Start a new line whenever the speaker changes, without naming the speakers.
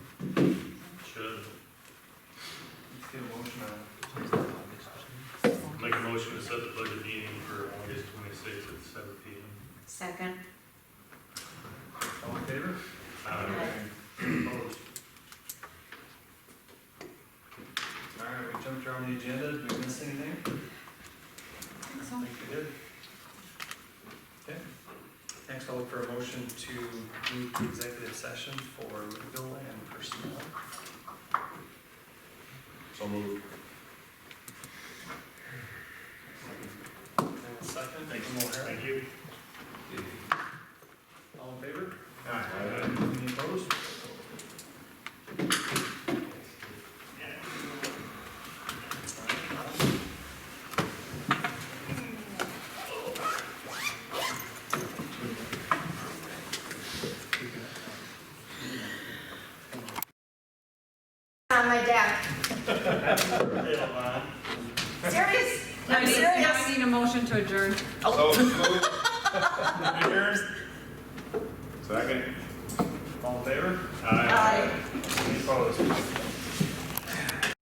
Make a motion to set the budget meeting for August twenty-sixth at seven P M.
Second.
All in favor?
Aye.
Opposed? All right, we jumped around the agenda, did we miss anything? I think we did. Okay. Next, I'll look for a motion to move to executive session for legal and personnel.
So moved.
And a Second,
Thanks.
Jim O'Hara.
Thank you.
all in favor?
Aye.
Any opposed?
On Uh, my deck. Serious?
Now
I'm
we need-
serious.
Now we need a motion to adjourn.
So moved. Second.
All in favor?
Aye.
Aye. Uh,
Any opposed?